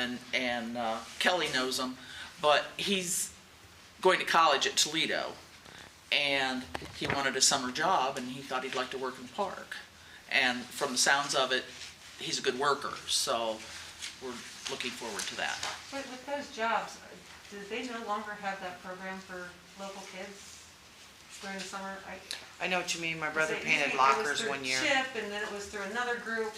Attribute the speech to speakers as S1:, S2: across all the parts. S1: and, and uh, Kelly knows him, but he's going to college at Toledo, and he wanted a summer job, and he thought he'd like to work in the park. And from the sounds of it, he's a good worker, so we're looking forward to that.
S2: With, with those jobs, uh, do they no longer have that program for local kids during the summer? I-
S3: I know what you mean, my brother
S2: it usually-
S3: painted
S2: it
S3: lockers one year.
S2: was through CHIP, and then it was through another group.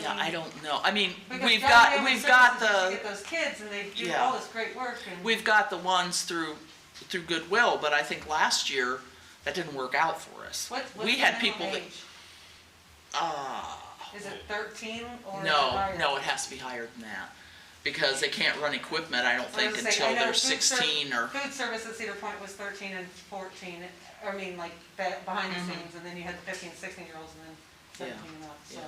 S1: Yeah, I don't know. I mean,
S2: because
S1: we've
S2: Guardian
S1: got,
S2: Family
S1: we've got
S2: Services used to
S1: the,
S2: Get those kids, and they do
S1: Yeah.
S2: all this great work, and.
S1: we've got the ones through, through Goodwill, but I think last year, that didn't work out for us.
S2: What- what's
S1: We
S2: the
S1: had
S2: minimum
S1: people that,
S2: age?
S1: ah.
S2: Is it thirteen or? is it
S1: No,
S2: higher?
S1: no, it has to be higher than that, because they can't run equipment, I don't
S2: I
S1: think,
S2: was gonna say, I
S1: until
S2: know
S1: they're
S2: food ser-
S1: sixteen or,
S2: Food service at Cedar Point was thirteen and fourteen, I mean, like, be- behind the scenes, and then you had fifteen, sixteen-year-olds, and then
S1: Mm-hmm. Yeah,
S2: seventeen and up, so.
S1: yeah.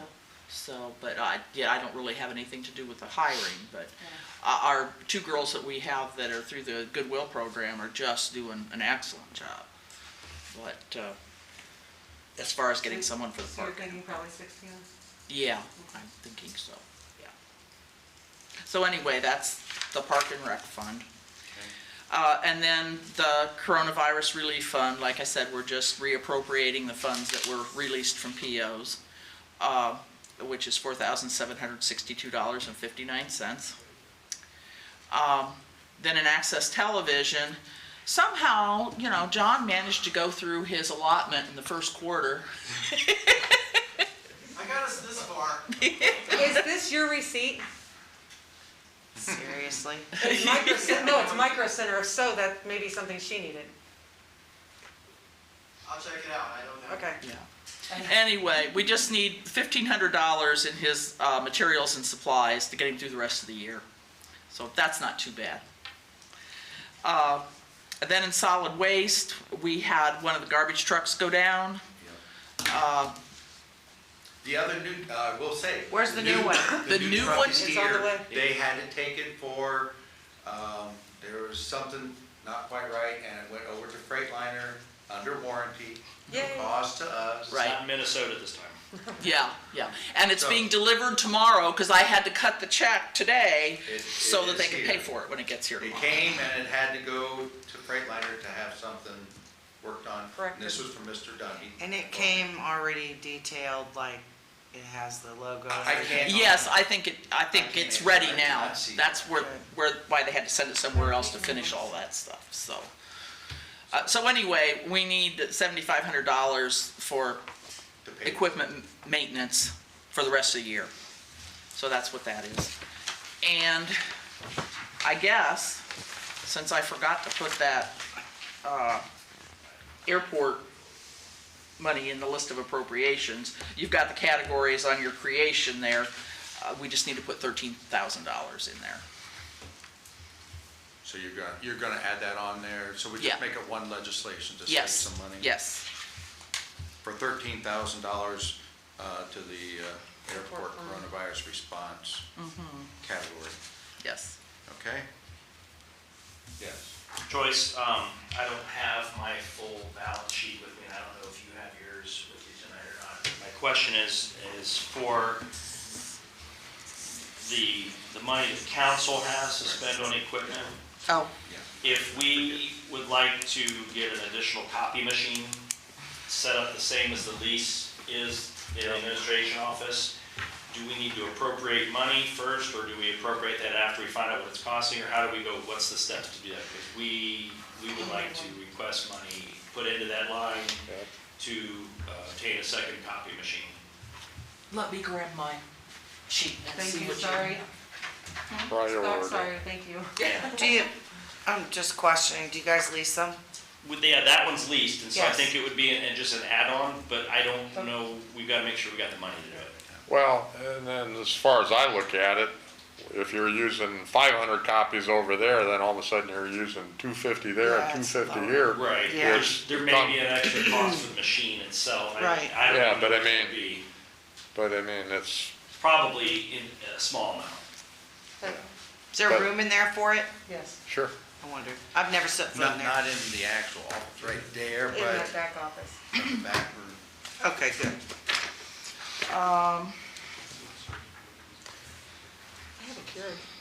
S1: so, but I, yeah, I don't really have anything to do with the hiring, but
S2: yeah.
S1: uh, our two girls that we have that are through the Goodwill program are just doing an excellent job. But, uh, as far as getting someone for the
S2: So you're
S1: park,
S2: thinking probably sixteen?
S1: yeah, I'm thinking so, yeah. So anyway, that's the Park and Rec Fund. Uh, and then the Coronavirus Relief Fund, like I said, we're just reappropriating the funds that were released from POs, uh, which is four thousand seven hundred sixty-two dollars and fifty-nine cents. Um, then in Access Television, somehow, you know, John managed to go through his allotment in the first quarter.
S4: I got us this far.
S2: Is this your receipt?
S3: Seriously?
S2: It's Micro Cen- No, it's Micro Center, if so, that may be something she needed.
S4: I'll check it out. I don't know.
S2: Okay.
S1: Yeah. Anyway, we just need fifteen hundred dollars in his uh, materials and supplies to get him through the rest of the year. So that's not too bad. Uh, and then in solid waste, we had one of the garbage trucks go down. Uh,
S5: The other new, uh, we'll say.
S3: Where's the new one?
S1: The new
S5: truck
S1: one?
S5: is
S2: It's on the
S5: here.
S2: way.
S5: They had it taken for, um, there was something not quite right, and it went over to Freightliner under warranty. No
S2: Yay.
S5: cost to us.
S1: Right.
S6: It's not Minnesota this time.
S1: yeah, yeah, and it's being delivered tomorrow because I had to cut the check today
S5: It- it
S1: so that they
S5: is
S1: can pay
S5: here.
S1: for it when it gets here
S5: It
S1: tomorrow.
S5: came and it had to go to Freightliner to have something worked on.
S2: Corrected.
S5: And this was from Mr. Dungy.
S3: And it came already detailed, like, it has the logo. and
S5: I
S3: everything.
S5: can't.
S1: Yes, I think it, I think it's ready now. That's where,
S3: Okay.
S1: where, why they had to send it somewhere else to finish all that stuff, so. Uh, so anyway, we need seventyfive hundred dollars for
S5: to pay.
S1: equipment m- maintenance for the rest of the year. So that's what that is. And I guess, since I forgot to put that, uh, airport money in the list of appropriations, you've got the categories on your creation there. Uh, we just need to put thirteen thousand dollars in there.
S5: So you're gonna, you're gonna add that on there, so we
S1: Yeah.
S5: just make it one legislation to save
S1: Yes,
S5: some money?
S1: yes,
S5: for thirteen thousand dollars to the uh, airport
S2: Airport fund.
S5: coronavirus response
S1: Mm-hmm.
S5: category,
S1: yes.
S5: okay? Yes.
S6: Joyce, um, I don't have my full balance sheet with me, and I don't know if you have yours with you tonight or not. My question is, is for the, the money that council has to spend on equipment,
S1: Oh,
S6: if we would like to get an additional copy machine set up the same as the lease is in the administration office, do we need to appropriate money first, or do we appropriate that after we find out what it's costing, or how do we go, what's the steps to do that? Because we, we would like to request money put into that line to uh, obtain a second copy machine.
S1: let me grab my sheet and see
S2: Thank you,
S1: what you.
S2: sorry.
S7: Right
S2: Stop,
S7: order.
S2: Sorry, thank you.
S3: Do you, I'm just questioning, do you guys lease them?
S6: With, yeah, that one's leased, and so I
S3: Yes.
S6: think it would be an- just an add-on, but I don't know, we've got to make sure we got the money to do it.
S7: Well, and then as far as I look at it, if you're using five hundred copies over there, then all of a sudden you're using two fifty there
S3: Yeah,
S7: and two
S3: it's
S7: fifty
S3: low.
S7: here.
S6: Right,
S3: Yeah.
S6: there's, there may be an extra cost for the machine itself, I,
S3: Right.
S6: I don't know.
S7: Yeah, but I
S6: what it
S7: mean-
S6: would be.
S7: But I mean, it's,
S6: Probably in a small amount.
S3: Is there
S7: But-
S3: room in there for it?
S2: Yes,
S7: sure,
S3: I wonder. I've never set foot in
S5: Not,
S3: there.
S5: not in the actual office, right there,
S2: in that
S5: but
S2: back office.
S5: in the back room.
S3: Okay, good.
S1: Um,
S2: I have a Keurig.